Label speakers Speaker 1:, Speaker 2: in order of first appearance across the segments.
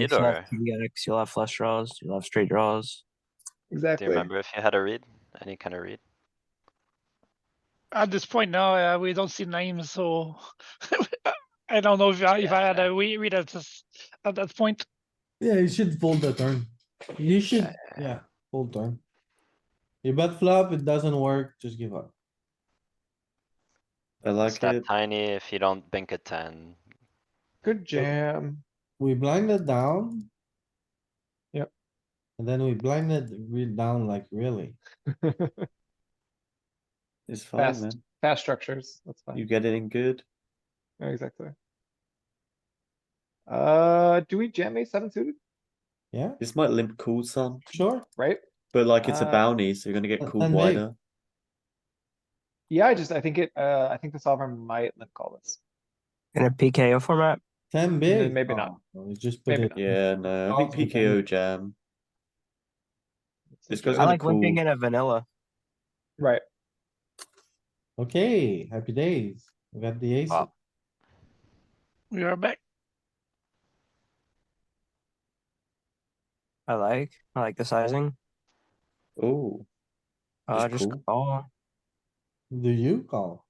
Speaker 1: read
Speaker 2: You'll
Speaker 1: or
Speaker 2: have PDX, you'll have flush draws, you'll have straight draws.
Speaker 1: do
Speaker 3: Exactly.
Speaker 1: you remember if you had a read? Any kind of read?
Speaker 4: At this point now, uh, we don't see names, so I don't know if I, if I had
Speaker 1: Yeah.
Speaker 4: a we read at this at that point.
Speaker 5: Yeah, you should fold the turn. You should, yeah, fold turn. You bet flop, it doesn't work, just give up.
Speaker 6: I
Speaker 1: It's
Speaker 6: like
Speaker 1: that
Speaker 6: it.
Speaker 1: tiny if you don't bink a ten.
Speaker 3: Good jam.
Speaker 5: We blinded down.
Speaker 3: Yep.
Speaker 5: And then we blinded re- down like really.
Speaker 6: It's fine,
Speaker 3: Fast.
Speaker 6: man.
Speaker 3: Fast structures, that's
Speaker 6: You
Speaker 3: fine.
Speaker 6: get it in good.
Speaker 3: Yeah, Exactly. Uh, do we jam ace seven suited,
Speaker 5: Yeah,
Speaker 6: This might limp cool some,
Speaker 5: sure.
Speaker 3: right?
Speaker 6: but like it's a
Speaker 3: Uh,
Speaker 6: bounty, so you're gonna get
Speaker 5: and-
Speaker 6: cooled
Speaker 5: and maybe.
Speaker 6: wider.
Speaker 3: Yeah, I just, I think it, uh, I think the solver might limp call this.
Speaker 2: In a PKO format,
Speaker 5: Ten big.
Speaker 3: maybe not.
Speaker 5: Oh, We just put
Speaker 3: Maybe
Speaker 5: it.
Speaker 3: not.
Speaker 6: Yeah, no, I
Speaker 5: Calls and
Speaker 6: think PKO jam. This goes
Speaker 2: I
Speaker 6: Kinda
Speaker 2: like limping
Speaker 6: cool.
Speaker 2: in a vanilla.
Speaker 3: Right,
Speaker 5: Okay, happy days. We got the ace.
Speaker 1: Wow.
Speaker 4: We are back.
Speaker 2: I like, I like the sizing.
Speaker 6: Oh,
Speaker 2: Uh,
Speaker 6: Just
Speaker 2: just
Speaker 6: cool.
Speaker 2: call.
Speaker 5: Do you call?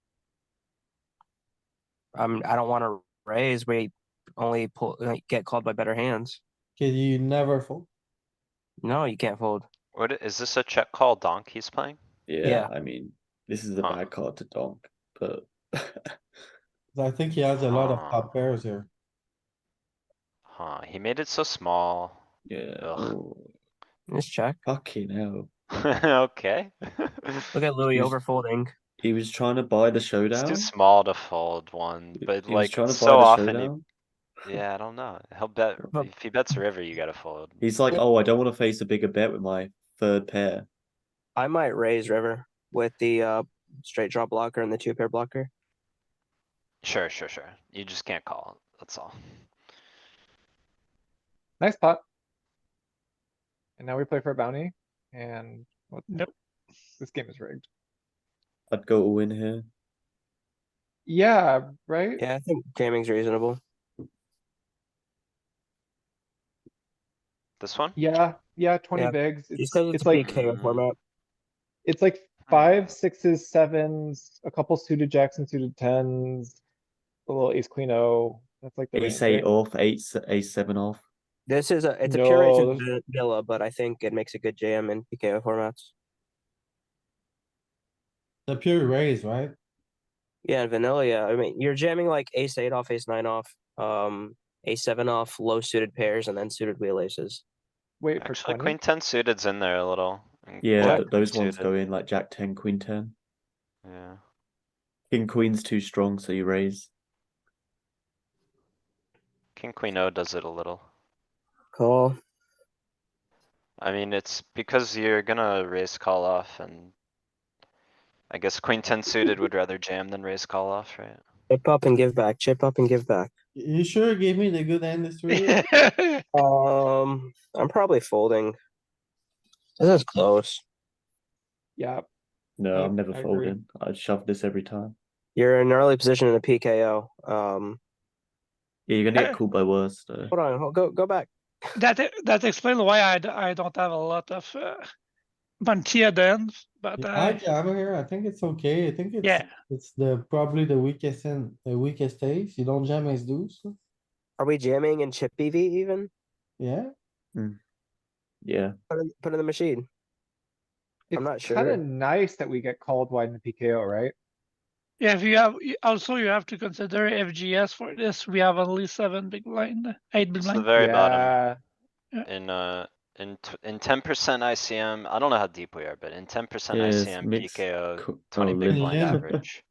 Speaker 2: I'm, I don't wanna raise, we only pull, like, get called by better hands.
Speaker 5: Okay, you never fold?
Speaker 2: No, you can't fold.
Speaker 1: What, i- is this a check call donk he's playing?
Speaker 6: yeah,
Speaker 2: Yeah.
Speaker 6: I mean, this is a
Speaker 1: Huh.
Speaker 6: bad card to donk, but.
Speaker 5: I think he has a lot of
Speaker 1: Ah.
Speaker 5: top pairs here.
Speaker 1: Huh, he made it so small.
Speaker 6: Yeah,
Speaker 1: Ugh.
Speaker 6: oh,
Speaker 2: Just check.
Speaker 6: fucking hell.
Speaker 1: Okay.
Speaker 2: Look at Louis
Speaker 6: He's-
Speaker 2: overfolding.
Speaker 6: He was trying to buy the
Speaker 1: It's
Speaker 6: showdown.
Speaker 1: too small to fold one,
Speaker 6: He-
Speaker 1: but
Speaker 6: he was
Speaker 1: like
Speaker 6: trying to buy
Speaker 1: so
Speaker 6: the
Speaker 1: often, he-
Speaker 6: showdown.
Speaker 1: yeah, I don't know. He'll bet,
Speaker 2: But-
Speaker 1: if he bets a river, you gotta fold.
Speaker 6: He's like, oh, I don't wanna face a bigger bet with my third pair.
Speaker 2: I might raise river with the, uh, straight draw blocker and the two pair blocker.
Speaker 1: Sure, sure, sure. You just can't call, that's all.
Speaker 3: nice pot. And now we play for a bounty and what?
Speaker 4: Nope.
Speaker 3: This game is rigged.
Speaker 6: I'd go all in here.
Speaker 3: Yeah, right?
Speaker 2: Yeah, I think jamming's reasonable.
Speaker 1: This one?
Speaker 3: Yeah, yeah, twenty
Speaker 2: Yeah,
Speaker 3: bigs.
Speaker 2: Just
Speaker 3: It's,
Speaker 2: cause it's Mm.
Speaker 3: it's like,
Speaker 2: PKO format.
Speaker 3: it's like five, sixes, sevens, a couple suited jacks and suited tens. A little ace, queen, oh, that's like the range,
Speaker 6: Ace eight
Speaker 3: right?
Speaker 6: off, eight, s- ace seven off.
Speaker 2: This is a, it's a
Speaker 3: No,
Speaker 2: pure
Speaker 3: this-
Speaker 2: vanilla, but I think it makes a good jam in PKO formats.
Speaker 5: The pure raise, right?
Speaker 2: Yeah, and vanilla. yeah. I mean, you're jamming like ace eight off, ace nine off, um, ace seven off, low suited pairs, and then suited wheel aces.
Speaker 3: Wait for
Speaker 1: Actually,
Speaker 3: twenty?
Speaker 1: queen ten suited's in there a little. and
Speaker 6: Yeah,
Speaker 1: jack
Speaker 6: th- those ones
Speaker 1: suited,
Speaker 6: go in like jack ten, queen ten.
Speaker 1: Yeah.
Speaker 6: King queen's too strong, so you raise.
Speaker 1: King queen O does it a little.
Speaker 2: Call.
Speaker 1: I mean, it's because you're gonna raise call off and. I guess queen ten suited would rather jam than raise call off, right?
Speaker 2: Chip up and give back. Chip up and give back.
Speaker 5: You sure gave me the good end this week?
Speaker 2: Um, I'm probably folding. This is close.
Speaker 3: Yeah,
Speaker 6: No,
Speaker 3: Yeah,
Speaker 6: I'm never
Speaker 3: I agree.
Speaker 6: folding. I'd shove this every time.
Speaker 2: You're in an early position in a PKO. Um,
Speaker 6: Yeah, you're gonna get
Speaker 4: Uh,
Speaker 6: called by worse though.
Speaker 2: hold on, hold, go go back.
Speaker 4: that e- that explains why I, d- I don't have a lot of uh, bounty at the end, but uh,
Speaker 5: I
Speaker 4: I,
Speaker 5: jam here, I think it's okay, I think it's,
Speaker 4: yeah,
Speaker 5: it's the, probably the weakest and, the weakest ace, you don't jam ace deuce,
Speaker 2: Are we jamming in chip BV even?
Speaker 5: yeah?
Speaker 6: Yeah,
Speaker 2: Put in, put in the machine. I'm not
Speaker 3: it's kind
Speaker 2: sure.
Speaker 3: of nice that we get called wide in the PKO, right?
Speaker 4: yeah. If you have you- also you have to consider FGS for this. We have only seven big blind, eight big
Speaker 1: It's the
Speaker 4: blind.
Speaker 1: very bottom
Speaker 3: yeah.
Speaker 1: in, uh, in, t- in ten percent ICM, I don't know how deep we are, but in ten percent
Speaker 6: Yeah, it's
Speaker 1: ICM
Speaker 6: mixed
Speaker 1: PKO,
Speaker 6: Co-
Speaker 1: Uh, twenty
Speaker 6: oh,
Speaker 1: big
Speaker 6: limp.
Speaker 1: blind
Speaker 5: Yeah.
Speaker 1: average.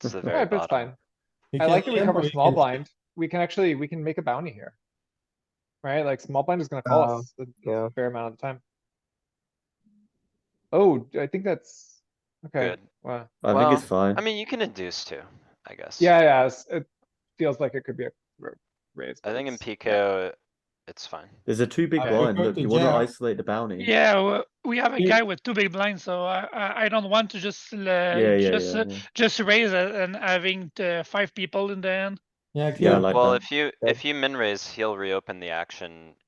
Speaker 1: It's the very
Speaker 3: Alright, but it's
Speaker 1: bottom.
Speaker 3: fine. I like that we cover small blind. We can actually, we can make a bounty here. Right? Like small blind is gonna call
Speaker 1: Um,
Speaker 2: Uh,
Speaker 3: us a
Speaker 2: Yeah.
Speaker 3: fair amount of the time. Oh, I think that's, okay,
Speaker 1: Good.
Speaker 3: wow.
Speaker 6: I think it's
Speaker 1: Well,
Speaker 6: fine.
Speaker 1: I mean, you can induce too, I guess.
Speaker 3: Yeah, yeah, it's- it feels like it could be a r- raise.
Speaker 1: I
Speaker 3: but
Speaker 1: think in
Speaker 3: it's-
Speaker 1: PKO, it's fine.
Speaker 6: There's a two big
Speaker 3: I
Speaker 6: blind.
Speaker 5: prefer
Speaker 6: Look,
Speaker 5: to
Speaker 6: you wanna
Speaker 5: jam.
Speaker 6: isolate the bounty.
Speaker 4: Yeah, w- we have a
Speaker 5: Yeah.
Speaker 4: guy with two big blinds, so I I, I don't want to just uh,
Speaker 6: Yeah, yeah,
Speaker 4: just
Speaker 6: yeah,
Speaker 4: uh,
Speaker 6: yeah.
Speaker 4: just raise uh, and having uh, five people in the end.
Speaker 5: Yeah,
Speaker 6: Yeah, I
Speaker 5: clear.
Speaker 6: like
Speaker 1: Well,
Speaker 6: that.
Speaker 1: if you,
Speaker 5: Yeah.
Speaker 1: if you min raise, he'll reopen the action